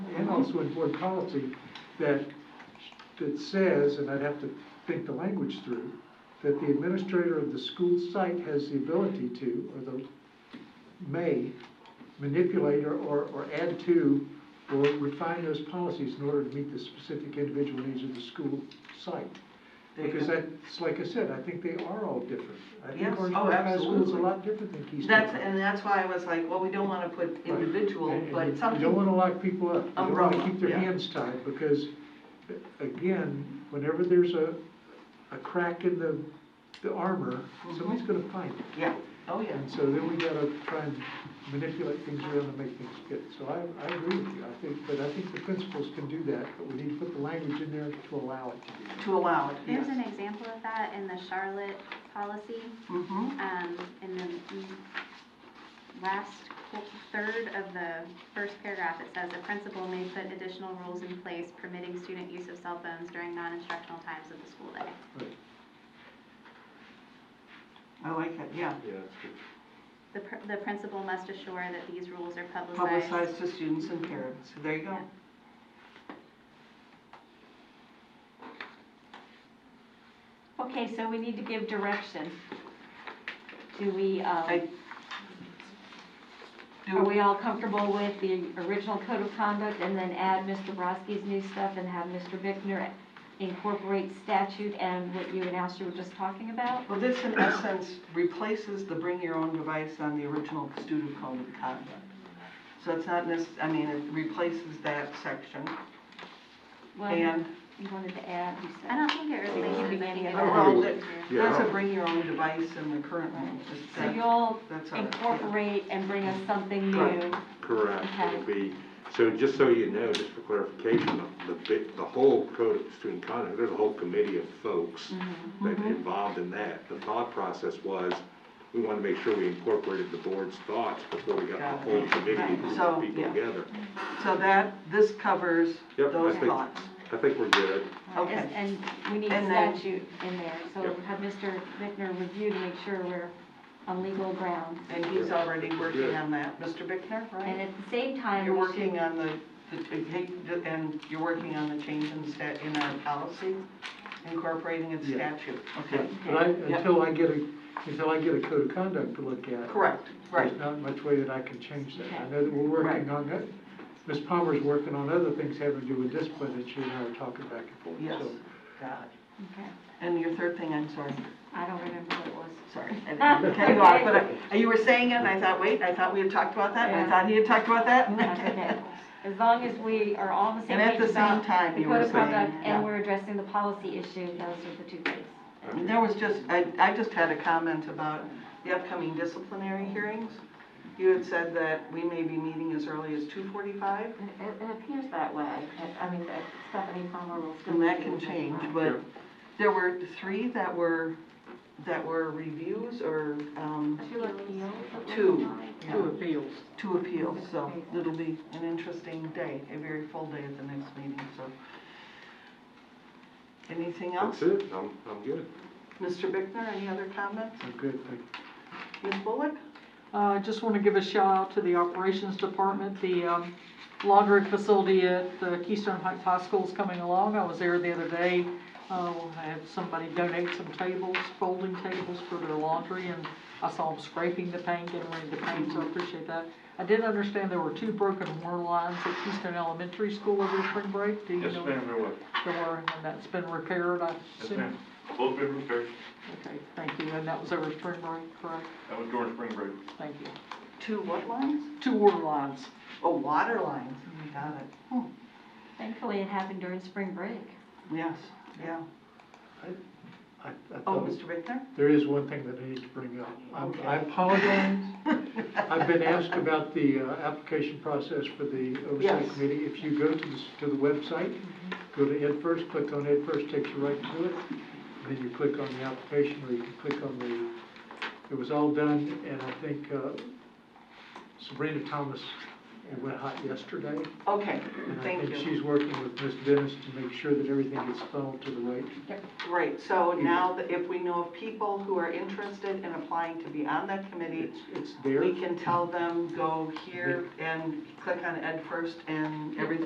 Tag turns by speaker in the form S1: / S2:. S1: and also in board policy, that, that says, and I'd have to think the language through, that the administrator of the school site has the ability to, or the, may manipulate or, or or add to, or refine those policies in order to meet the specific individual needs of the school site.
S2: There you
S1: Because
S2: go.
S1: that's, like I said, I think they are all different. I
S2: Yes.
S1: think Orange
S2: Oh,
S1: Grove High School is a
S2: absolutely.
S1: lot different than Keystone.
S2: That's, and that's why I was like, well, we don't wanna put
S1: Right.
S2: individual,
S1: And- and
S2: but
S1: you- You don't
S2: something,
S1: wanna lock people up. You don't wanna
S2: Umbrella,
S1: keep their
S2: yeah.
S1: hands tied, because, uh, again, whenever there's a, a crack in the, the armor,
S2: Mm-hmm.
S1: somebody's gonna find it.
S2: yeah, oh, yeah.
S1: And so then we gotta try and manipulate things around to make things fit. So I, I agree with you, I think, but I think the principals can do that, but we need to put the language in there to allow it to be. done.
S2: To allow it,
S3: There's an
S2: yes.
S3: example of that in the Charlotte policy,
S2: Mm-hmm,
S3: um, in the mm, last qu- third of the first paragraph, it says, "The principal may put additional rules in place permitting student use of cell phones during non-instructional times of the school day."
S1: Right.
S2: I like it, yeah.
S4: Yeah, it's
S3: The, pr- the principal must assure that these rules are publicized.
S2: Publicized to students and parents, there you go.
S5: Okay, so we need to give direction. Do we, um,
S2: I-
S5: are we
S2: Do,
S5: all comfortable with the original code of conduct and then add Mr. Broski's new stuff and have Mr. Bickner incorporate statute and what you and Ashley were just talking about?
S2: well, this in essence replaces the bring your own device on the original student code of conduct. So it's not necess, I mean, it replaces that section
S5: Well,
S2: and
S5: You wanted to add, you
S3: I
S5: said.
S3: don't think it relates to any of
S2: Oh,
S3: that.
S2: well, that-
S4: Yeah.
S2: that's a bring your own device in the current language.
S5: So you'll
S2: That's all right, yeah.
S5: incorporate and bring us something new.
S2: Right.
S4: Correct,
S5: Okay.
S4: it'll be, so just so you know, just for clarification, the bit, the whole code of student conduct, there's a whole committee of folks
S2: Mm-hmm.
S4: that involved in that. The thought process was, we wanted to make sure we incorporated the board's thoughts before we got
S2: Got
S4: the
S2: it.
S4: whole committee
S2: Right,
S4: group
S2: so,
S4: of people
S2: yeah.
S4: together.
S2: So that, this covers
S4: Yep, I
S2: those
S4: think,
S2: thoughts.
S4: I think we're good.
S2: Okay.
S5: Is- And we need
S2: And then-
S5: statute in there, so
S4: Yep.
S5: have Mr. Bickner review to make sure we're on legal ground.
S2: And he's already working
S4: Good.
S2: on that, Mr. Bickner,
S5: And
S2: right?
S5: at the same time,
S2: You're
S5: we should-
S2: working on the, the- and you're working on the change in stat, in our policy, incorporating in
S1: Yeah.
S2: statute, okay?
S1: But I,
S2: Yep.
S1: until I get a, until I get a code of conduct to look at.
S2: Correct, right,
S1: There's not much way that I can change that. I
S5: Okay.
S1: know that we're
S2: Right.
S1: working on that. Ms. Palmer's working on other things having to do with discipline that she and I are talking back and forth.
S2: yes,
S1: So
S2: got it.
S5: Okay.
S2: And your third thing, I'm sorry,
S5: I don't remember what it was.
S2: sorry, I didn't cut you off, but I- you were saying it, and I thought, wait, I thought we had talked about that, and I
S5: Yeah.
S2: thought he had talked about that, and
S5: That's okay. As long as we are all on the same
S2: And at
S5: page
S2: the same
S5: about
S2: time,
S5: the
S2: you were
S5: code of
S2: saying,
S5: conduct
S2: yeah.
S5: and we're addressing the policy issue, those are the two things.
S2: And There was just, I, I just had a comment about the upcoming disciplinary hearings. You had said that we may be meeting as early as two forty-five,
S6: It, it appears that way. It- I mean, that Stephanie Palmer will still.
S2: and that
S6: be
S2: can
S6: here.
S2: change, but there were three that were, that were reviews or, um,
S6: Two appeals. it looks
S2: Two.
S6: like.
S2: Two appeals. Two appeals, so it'll be an interesting day, a very full day at the next meeting, so. Anything else?
S4: That's it, I'm, I'm good.
S2: Mr. Bickner, any other comments?
S1: I'm good, thank you.
S2: Ms. Bullock?
S7: Uh, I just want to give a shout out to the operations department. The um, laundry facility at the Keystone Heights High School is coming along. I was there the other day. Uh, I had somebody donate some tables, folding tables for their laundry, and I saw them scraping the paint, getting ready to paint, so I appreciate that. I did understand there were two broken water lines at Keystone Elementary School over the spring break. Do you
S8: Yes,
S7: know?
S8: ma'am, there was.
S7: There were, and that's been repaired, I
S8: Yes,
S7: assume?
S8: ma'am. Both been repaired.
S7: Okay, thank you. And that was over spring break, correct?
S8: That was during spring break.
S7: Thank you.
S2: Two what lines?
S7: Two water lines.
S2: Oh, water lines, we got it. Hmm.
S5: Thankfully, it happened during spring break.
S2: Yes, yeah.
S1: I, I
S2: Oh,
S1: thought,
S2: Mr. Bickner?
S1: there is one thing that I need to bring up. I'm- I
S2: Okay.
S1: apologize. I've been asked about the uh, application process for the oversight
S2: Yes. Mm-hmm.
S1: committee. If you go to the, s- to the website, go to Ed First, click on Ed First, takes you right to it. Then you click on the application, or you can click on the, it was all done, and I think uh, Sabrina Thomas, it went hot yesterday.
S2: Okay,
S1: And I
S2: thank
S1: think
S2: you.
S1: she's working with Ms. Dennis to make sure that everything gets funneled to the right.
S2: Right, so now that if we know of people who are interested in applying to be on that committee,
S1: It's, it's there.
S2: we can tell them, go here and click on Ed First and everything